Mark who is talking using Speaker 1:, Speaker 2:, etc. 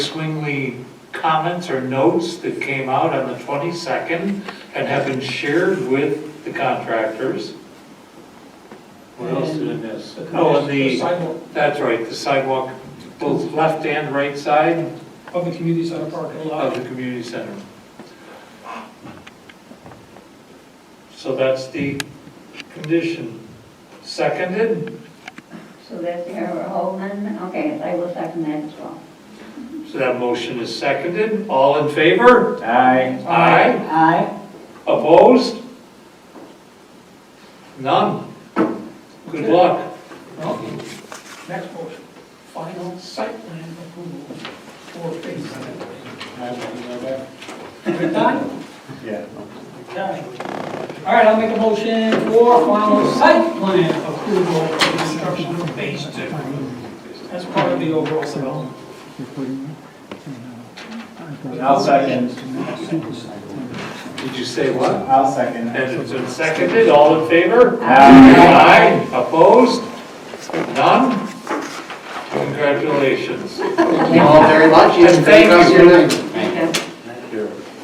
Speaker 1: Swingley comments or notes that came out on the 22nd and have been shared with the contractors. What else did I miss? Oh, and the,
Speaker 2: sidewalk
Speaker 1: that's right, the sidewalk, both left and right side
Speaker 2: of the community center parking
Speaker 1: of
Speaker 2: lot.
Speaker 1: the community center. So that's the condition. Seconded,
Speaker 3: So that's Eric Holman, okay, I will second that as well.
Speaker 1: so that motion is seconded. All in favor?
Speaker 4: Aye.
Speaker 1: Aye.
Speaker 3: Aye.
Speaker 1: Opposed? None. Good luck.
Speaker 2: Next motion, final site plan approval for phase seven. We're done?
Speaker 4: Yeah.
Speaker 2: Okay. All right, I'll make a motion for final site plan approval for construction of phase two. That's part of the overall development.
Speaker 4: I'll second.
Speaker 1: Did you say what?
Speaker 4: I'll second.
Speaker 1: And it's been seconded, all in favor?
Speaker 4: Aye.
Speaker 1: Opposed? None? Congratulations.
Speaker 5: Thank you all very much,
Speaker 1: And
Speaker 5: and thank
Speaker 1: thank
Speaker 5: us your
Speaker 1: you,
Speaker 5: name.